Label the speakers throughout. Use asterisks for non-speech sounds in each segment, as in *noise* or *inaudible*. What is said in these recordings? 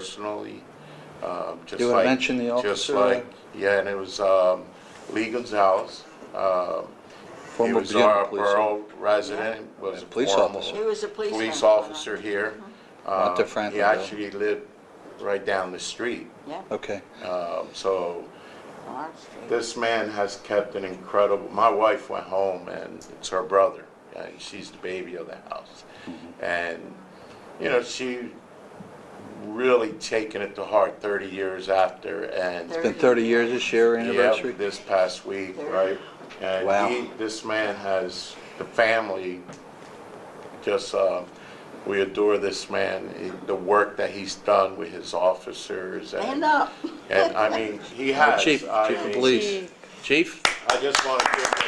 Speaker 1: personally, um, just like...
Speaker 2: You would mention the
Speaker 1: Just
Speaker 2: officer,
Speaker 1: like, yeah, and it was um, Lee Gonzalez. um, He
Speaker 2: Former
Speaker 1: was
Speaker 2: Bureau
Speaker 1: our
Speaker 2: police officer.
Speaker 1: borough resident, was
Speaker 2: And
Speaker 1: a
Speaker 2: police
Speaker 1: former
Speaker 2: officer.
Speaker 3: He was a police.
Speaker 1: police
Speaker 3: officer.
Speaker 1: officer
Speaker 3: Uh-huh.
Speaker 1: here.
Speaker 2: Not to
Speaker 1: Um, He
Speaker 2: Franklin, though.
Speaker 1: actually lived right down the street.
Speaker 3: Yeah,
Speaker 2: Okay,
Speaker 1: Um, So
Speaker 3: on our street.
Speaker 1: this man has kept an incredible, my wife went home and it's her brother, and she's the baby of the house.
Speaker 2: Mm-hmm.
Speaker 1: And, you know, she really taken it to heart 30 years after and.
Speaker 2: it's been 30 years this year anniversary?
Speaker 1: Yep, this past week, right?
Speaker 2: Wow.
Speaker 1: And he, this man has, the family, just, uh, we adore this man, He- the work that he's done with his officers
Speaker 3: And
Speaker 1: and,
Speaker 3: up.
Speaker 1: and I mean, he
Speaker 2: Uh,
Speaker 1: has.
Speaker 2: Chief, Chief
Speaker 1: I
Speaker 2: of
Speaker 1: mean,
Speaker 2: Police. Chief?
Speaker 1: I just want to give him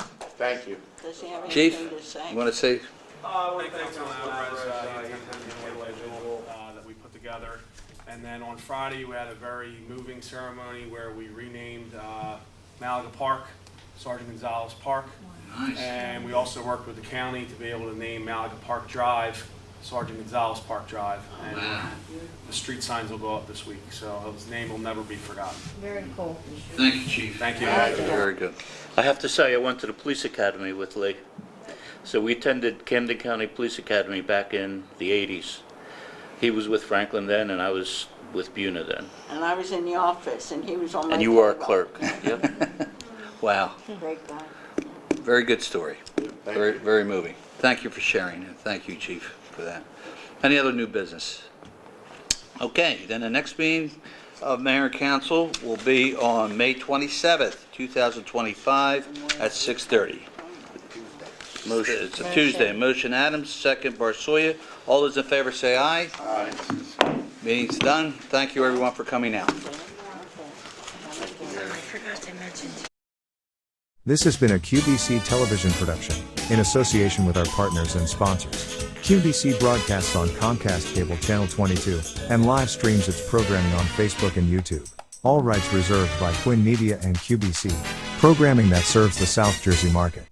Speaker 1: a thank you.
Speaker 3: Does he have
Speaker 2: Chief,
Speaker 3: anything to say?
Speaker 2: you want to say,
Speaker 4: Uh, we thank Councilman Alvarez, uh, he's an individual, uh, that we put together. And then on Friday, we had a very moving ceremony where we renamed, uh, Malaga Park Sergeant Gonzalez Park. And we also worked with the county to be able to name Malaga Park Drive Sergeant Gonzalez Park Drive. And the street signs will go up this week, so his name will never be forgotten.
Speaker 5: Very cool.
Speaker 2: thank you, Chief.
Speaker 4: Thank you.
Speaker 2: Very good.
Speaker 6: I have to say, I went to the police academy with Lee. So we attended Camden County Police Academy back in the 80s. He was with Franklin then, and I was with Buna then.
Speaker 3: And I was in the office and he was on my.
Speaker 6: And you were a
Speaker 3: payroll.
Speaker 6: clerk.
Speaker 3: *laughs*
Speaker 6: Yep.
Speaker 2: Wow,
Speaker 3: Great guy.
Speaker 2: very good story.
Speaker 1: Thank
Speaker 2: Very,
Speaker 1: you.
Speaker 2: very moving. Thank you for sharing, and thank you, Chief, for that. Any other new business? Okay, then the next meeting of Mayor and Council will be on May 27th, 2025, at 6:30. Motion. It's a Tuesday. Motion Adams, second Barsoya. All those in favor say aye. Aye. Meeting's done. Thank you, everyone, for coming out.
Speaker 5: I forgot I mentioned.
Speaker 7: This has been a QBC television production, in association with our partners and sponsors. QBC broadcasts on Comcast Cable Channel 22, and live streams its programming on Facebook and YouTube. All rights reserved by Quinn Media and QBC, programming that serves the South Jersey market.